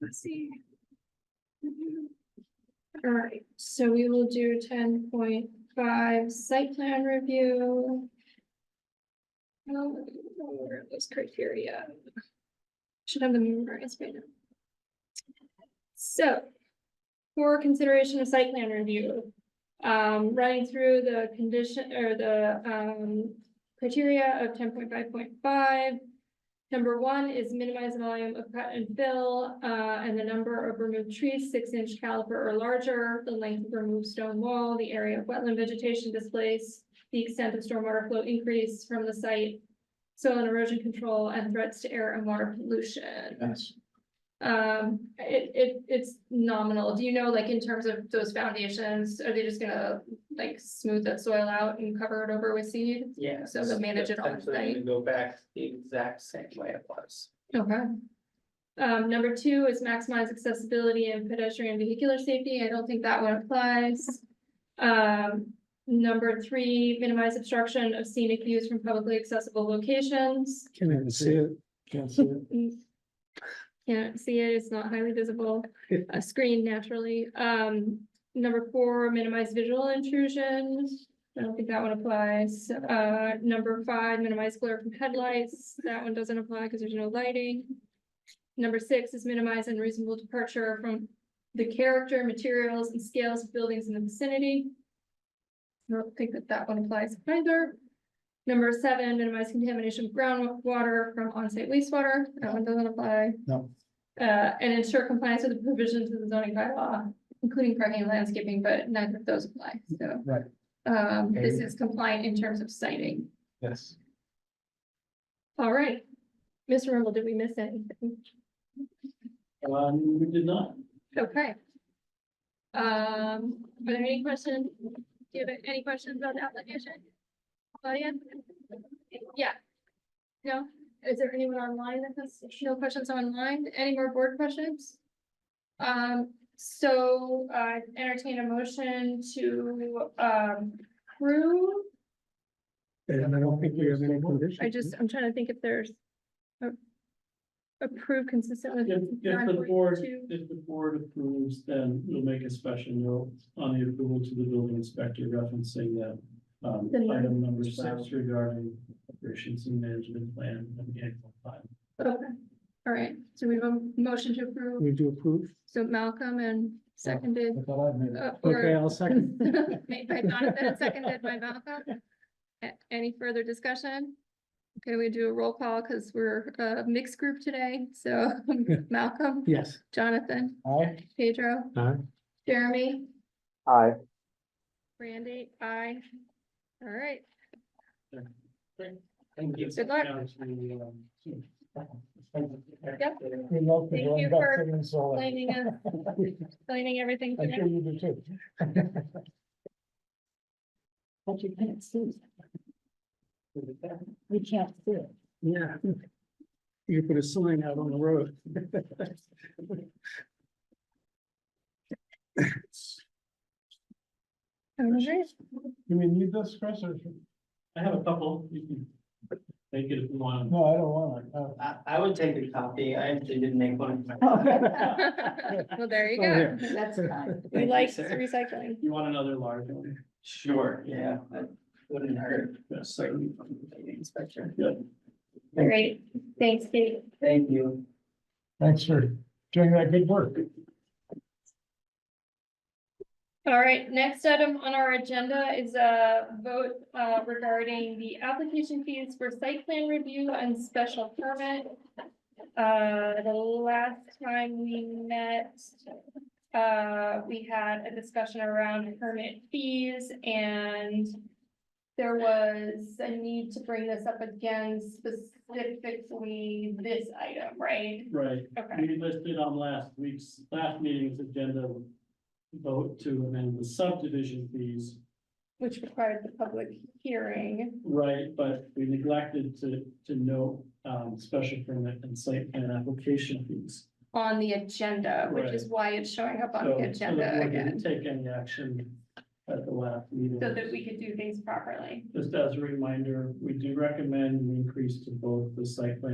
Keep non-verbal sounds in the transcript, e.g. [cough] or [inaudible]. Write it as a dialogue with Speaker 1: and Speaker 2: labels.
Speaker 1: Let's see. Alright, so we will do ten point five site plan review. Oh, where are those criteria? Should have them memorized by now. So. For consideration of site plan review. Um, running through the condition or the um criteria of ten point five point five. Number one is minimize the volume of cut and fill, uh, and the number of removed trees, six inch caliper or larger, the length of removed stone wall, the area of wetland vegetation displaced, the extent of stormwater flow increase from the site, soil and erosion control, and threats to air and water pollution.
Speaker 2: Yes.
Speaker 1: Um, it, it, it's nominal. Do you know, like, in terms of those foundations, are they just gonna, like, smooth that soil out and cover it over with seed?
Speaker 2: Yeah.
Speaker 1: So they'll manage it on
Speaker 2: Essentially, we
Speaker 1: site.
Speaker 2: Go back the exact same way it was.
Speaker 1: Okay. Um, number two is maximize accessibility and pedestrian vehicular safety. I don't think that one applies. Um, number three, minimize obstruction of scenic views from publicly accessible locations. Mm,
Speaker 3: Can't even see it. Can't see it.
Speaker 1: Can't see it, it's not highly visible, a screen naturally. Um, number four, minimize visual intrusion. I don't think that one applies. Uh, number five, minimize glare from headlights. That one doesn't apply because there's no lighting. Number six is minimize unreasonable departure from the character, materials and scales of buildings in the vicinity. I don't think that that one applies either. Number seven, minimize contamination of groundwater from onsite wastewater. That one doesn't apply.
Speaker 3: No.
Speaker 1: Uh, and ensure compliance with the provisions of the zoning bylaw, including parking and landscaping, but neither of those apply, so.
Speaker 3: Right.
Speaker 1: Um, this is compliant in terms of citing.
Speaker 3: Yes.
Speaker 1: All right. Mr. Rumble, did we miss anything?
Speaker 2: Um, we did not.
Speaker 1: Okay. Um, are there any questions? Do you have any questions about the application? Claudia? Yeah. No? Is there anyone online that has, no questions online? Any more board questions? Um, so, uh, entertain a motion to, um, approve.
Speaker 3: And I don't think we have any conditions.
Speaker 1: I just, I'm trying to think if there's a approve consistent with.
Speaker 4: If, if the board,
Speaker 1: 9.2.
Speaker 4: if the board approves, then we'll make a special note on the approval to the building inspector referencing that. Um,
Speaker 1: The note.
Speaker 4: item number six regarding operations and management plan and the annual plan.
Speaker 1: Okay, all right, so we have a motion to approve.
Speaker 3: We do approve.
Speaker 1: So Malcolm and seconded,
Speaker 3: I thought I made it.
Speaker 1: uh,
Speaker 3: Okay,
Speaker 1: or [laughs]
Speaker 3: I'll second.
Speaker 1: made by Jonathan, and seconded by Malcolm. A- Any further discussion? Okay, we do a roll call because we're a mixed group today, so
Speaker 3: [laughs]
Speaker 1: Malcolm,
Speaker 3: Yes.
Speaker 1: Jonathan,
Speaker 3: Aye.
Speaker 1: Pedro,
Speaker 3: Aye.
Speaker 1: Jeremy,
Speaker 2: Aye.
Speaker 1: Randy, I. All right,
Speaker 2: Thank you. um,
Speaker 1: Good luck. Yep.
Speaker 3: We love
Speaker 1: Thank
Speaker 3: going
Speaker 1: you
Speaker 3: back
Speaker 1: for
Speaker 3: to Minnesota.
Speaker 1: explaining us-
Speaker 2: [laughs]
Speaker 1: explaining everything.
Speaker 3: I'm
Speaker 1: today.
Speaker 3: sure you do too.
Speaker 5: [laughs] But you can't see. You can't see it.
Speaker 3: Yeah. You could put a sign out on the road.
Speaker 1: All right.
Speaker 3: Do we need this, Chris, or?
Speaker 4: I have a couple, you can make it if you want.
Speaker 3: No, I don't uh, want
Speaker 2: I, I would take a copy. I actually didn't make one.
Speaker 1: [laughs] Well, there you
Speaker 3: Oh,
Speaker 5: [laughs]
Speaker 1: go.
Speaker 5: That's fine.
Speaker 1: We
Speaker 2: you,
Speaker 1: like
Speaker 2: sir.
Speaker 1: recycling.
Speaker 4: You want another large one?
Speaker 2: Sure, yeah, that wouldn't hurt.
Speaker 4: Yes,
Speaker 2: So you from the building inspector.
Speaker 4: yeah.
Speaker 1: Great, thanks, Kate.
Speaker 2: Thank you.
Speaker 3: Thanks for doing that good work.
Speaker 1: All right, next item on our agenda is a vote uh, regarding the application fees for site plan review and special permit. Uh, the last time we met, uh, we had a discussion around permit fees and there was a need to bring this up again specifically this item, right?
Speaker 4: Right,
Speaker 1: Okay,
Speaker 4: we listed on last week's, last meeting's agenda vote to amend the subdivision fees
Speaker 1: which required the public hearing.
Speaker 4: Right, but we neglected to, to note, um, special permit and site plan application fees.
Speaker 1: on the agenda, which is why it's showing up on
Speaker 4: So- so
Speaker 1: the
Speaker 4: the
Speaker 1: agenda
Speaker 4: board didn't
Speaker 1: again,
Speaker 4: Take any action at the last meeting.
Speaker 1: so that we could do things properly.
Speaker 4: Just as a reminder, we do recommend an increase to both the site plan